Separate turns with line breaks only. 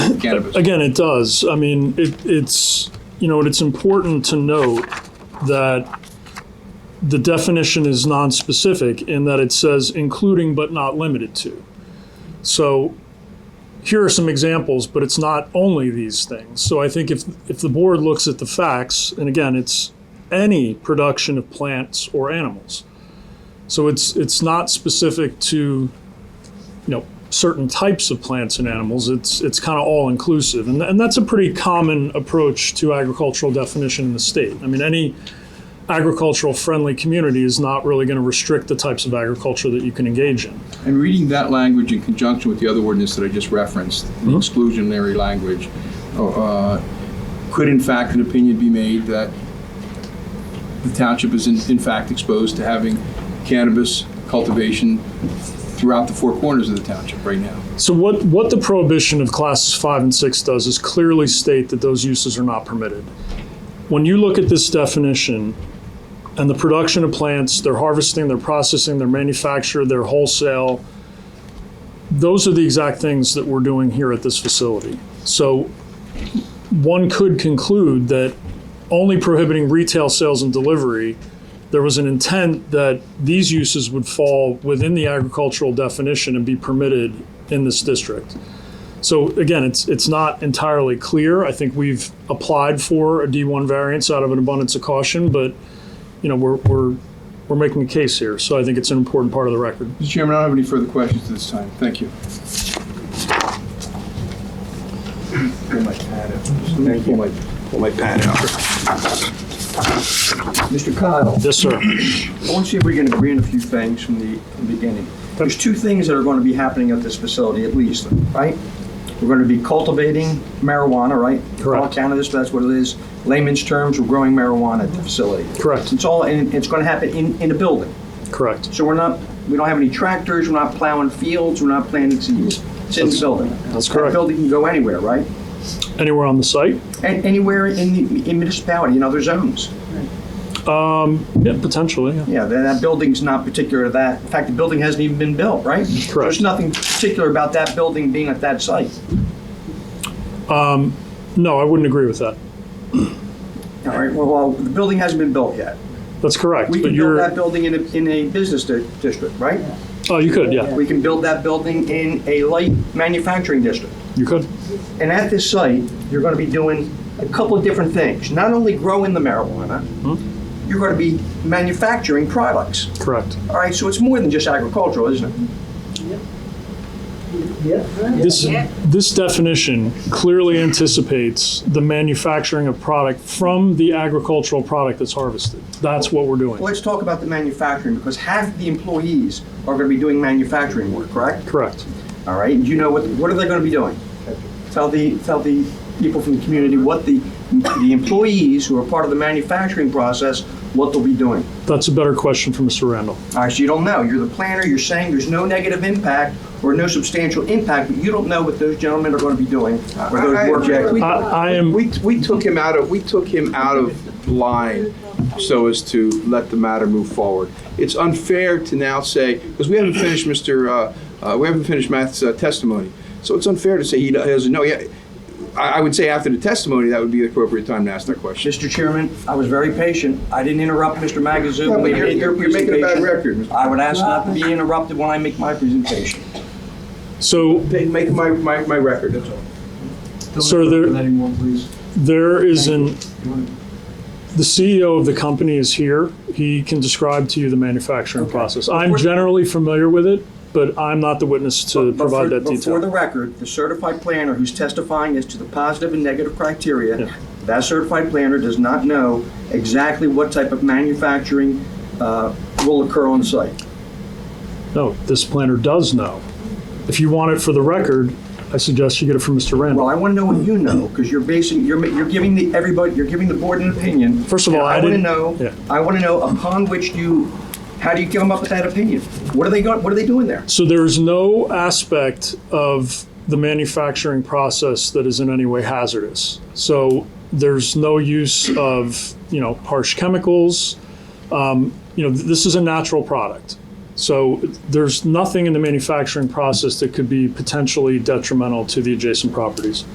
Again,
Davis.
again, it does. I mean, it, it's, you know, it's important to note that the definition is nonspecific in that it says including but not limited to. So here are some examples, but it's not only these things. So I think if, if the board looks at the facts, and again, it's any production of plants or animals. So it's, it's not specific to you know certain types of plants and animals it's it's kind of all inclusive and, and that's a pretty common approach to agricultural definition in the state i mean any agricultural friendly community is not really going to restrict the types of agriculture that you can engage in
And reading that language in conjunction with the other ordinance that I just referenced, the exclusionary language, uh, could in fact an opinion be made that the township is in, in fact exposed to having cannabis cultivation throughout the four corners of the township right now?
so what what the prohibition of classes 5 and 6 does is clearly state that those uses are not permitted when you look at this definition and the production of plants their harvesting their processing their manufacture their wholesale those are the exact things that we're doing here at this facility. So one could conclude that only prohibiting retail sales and delivery, there was an intent that these uses would fall within the agricultural definition and be permitted in this district. So again, it's, it's not entirely clear. I think we've applied for a D1 variance out of an abundance of caution, but, you know, we're, we're, we're making a case here. So I think it's an important part of the record.
Mr. Chairman, I don't have any further questions at this time. Thank you.
Pull my pad out. Pull my, pull my pad out. Mr. Kyle,
Yes, sir.
I want to see if we can agree on a few things from the from the beginning. There's two things that are going to be happening at this facility at least, right? We're going to be cultivating marijuana, right?
Correct.
All cannabis, that's what it is. Layman's terms, we're growing marijuana at the facility.
Correct.
It's all, and it's going to happen in, in a building.
Correct.
So we're not, we don't have any tractors, we're not plowing fields, we're not planting seeds. It's in the building.
that's correct.
That building can go anywhere, right?
Anywhere on the site?
And anywhere in the in municipality, in other zones.
Yeah, potentially, yeah.
Yeah, that, that building's not particular to that. In fact, the building hasn't even been built, right? There's nothing particular about that building being at that site.
No, I wouldn't agree with that.
All right, well, well, the building hasn't been built yet.
That's correct,
We
but
can build
you're,
that building in a, in a business di- district, right?
oh, you could, yeah,
We can build that building in a light manufacturing district.
you could.
And at this site, you're going to be doing a couple of different things. Not only growing the marijuana, you're going to be manufacturing products.
Correct.
All right, so it's more than just agricultural, isn't it?
This, this definition clearly anticipates the manufacturing of product from the agricultural product that's harvested. That's what we're doing.
Let's talk about the manufacturing, because half the employees are going to be doing manufacturing work, correct?
Correct.
All right, do you know what, what are they going to be doing? Tell the, tell the people from the community what the, the employees who are part of the manufacturing process, what they'll be doing.
That's a better question for Mr. Randall.
All right, so you don't know, you're the planner, you're saying there's no negative impact or no substantial impact, but you don't know what those gentlemen are going to be doing, or
I-
those
I-
work.
we-
I, I am,
We, we took him out of, we took him out of line so as to let the matter move forward. It's unfair to now say, because we haven't finished Mr., uh, uh, we haven't finished Matt's uh, testimony. So it's unfair to say he do- he doesn't know. Yeah, I, I would say after the testimony, that would be the appropriate time to ask that question.
Mr. Chairman, I was very patient, I didn't interrupt Mr. Magazoo.
No, but
when he
you're-
made their
you're- you're making a bad
presentation.
record, Mr.
I would ask not to be interrupted when I make my presentation.
so,
They Make my, my, my record, that's all.
sir, there, there is an, the CEO of the company is here. He can describe to you the manufacturing process. I'm generally familiar with it, but I'm not the witness to
But
provide that
for-
detail.
but For the record, the certified planner who's testifying as to the positive and negative criteria, that certified planner does not know exactly what type of manufacturing uh, will occur on site.
No, this planner does know. If you want it for the record, I suggest you get it from Mr.
Well,
Randall.
I want to know what you know, because you're basing, you're, ma- you're giving the, everybody, you're giving the board an opinion.
First of
and
all, I didn't-
want to
yeah.
know, I want to know upon which you, how do you come up with that opinion? What are they, go- what are they doing there?
So there is no aspect of the manufacturing process that is in any way hazardous. So there's no use of, you know, harsh chemicals. Um, You know, th- this is a natural product. So there's nothing in the manufacturing process that could be potentially detrimental to the adjacent properties.